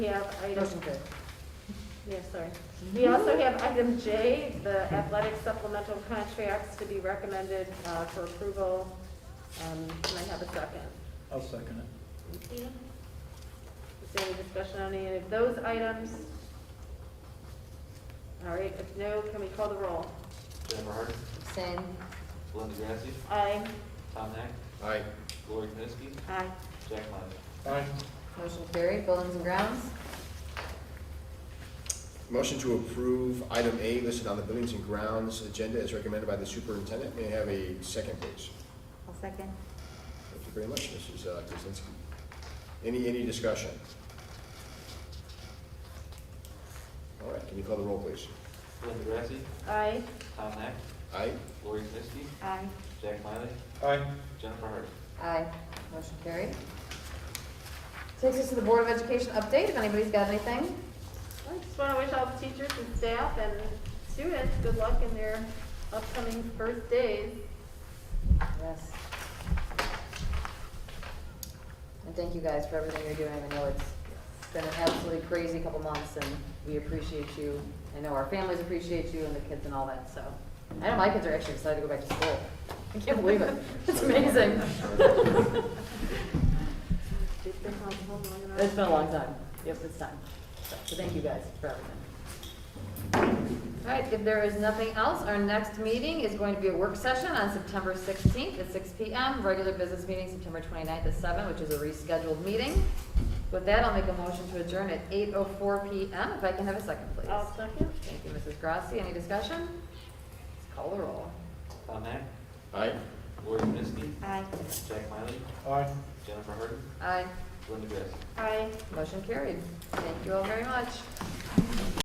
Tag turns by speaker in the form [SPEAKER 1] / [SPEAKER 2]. [SPEAKER 1] We have item,
[SPEAKER 2] Motion carried.
[SPEAKER 1] yeah, sorry. We also have item J, the athletic supplemental contracts to be recommended uh, for approval. Um, Can I have a second?
[SPEAKER 3] I'll second it.
[SPEAKER 1] Thank you. Is there any discussion on any of those items? All right, if no, can we call the roll?
[SPEAKER 4] Jennifer Harden,
[SPEAKER 2] Same.
[SPEAKER 4] Linda Grassi,
[SPEAKER 1] Aye.
[SPEAKER 4] Tom Nack,
[SPEAKER 5] Aye.
[SPEAKER 4] Lori Knessky,
[SPEAKER 1] Aye.
[SPEAKER 4] Jack Miley.
[SPEAKER 3] Aye.
[SPEAKER 2] Motion carried. Buildings and grounds?
[SPEAKER 5] Motion to approve item A listed on the Buildings and Grounds agenda as recommended by the superintendent. May I have a second, please?
[SPEAKER 2] I'll second.
[SPEAKER 5] Thank you very much, Mrs. uh, Kuzinski. Any, any discussion? All right, can you call the roll, please?
[SPEAKER 4] Linda Grassi,
[SPEAKER 1] Aye.
[SPEAKER 4] Tom Nack,
[SPEAKER 5] Aye?
[SPEAKER 4] Lori Knessky,
[SPEAKER 2] Aye.
[SPEAKER 4] Jack Miley,
[SPEAKER 3] Aye.
[SPEAKER 4] Jennifer Harden.
[SPEAKER 2] Aye. Motion carried. Takes us to the Board of Education update, if anybody's got anything.
[SPEAKER 1] I just want to wish all the teachers and staff and students good luck in their upcoming first days.
[SPEAKER 2] Yes. And thank you guys for everything you're doing. I know it's been an absolutely crazy couple months, and we appreciate you. I know our families appreciate you and the kids and all that, so. I know my kids are actually excited to go back to school. I can't believe it. It's amazing.
[SPEAKER 1] They've been home long enough.
[SPEAKER 2] It's been a long time. Yep, it's time. So so thank you guys for everything. All right, if there is nothing else, our next meeting is going to be a work session on September 16th at 6 PM. Regular business meeting September 29th at 7, which is a rescheduled meeting. With that, I'll make a motion to adjourn at 8:04 PM. If I can have a second, please.
[SPEAKER 1] I'll second.
[SPEAKER 2] Thank you, Mrs. Grassi. Any discussion? Let's Call the roll.
[SPEAKER 4] Tom Nack,
[SPEAKER 5] Aye?
[SPEAKER 4] Lori Knessky,
[SPEAKER 1] Aye.
[SPEAKER 4] Jack Miley,
[SPEAKER 3] Aye.
[SPEAKER 4] Jennifer Harden,
[SPEAKER 2] Aye.
[SPEAKER 4] Linda Grassi.
[SPEAKER 1] Aye.
[SPEAKER 2] Motion carried. Thank you all very much.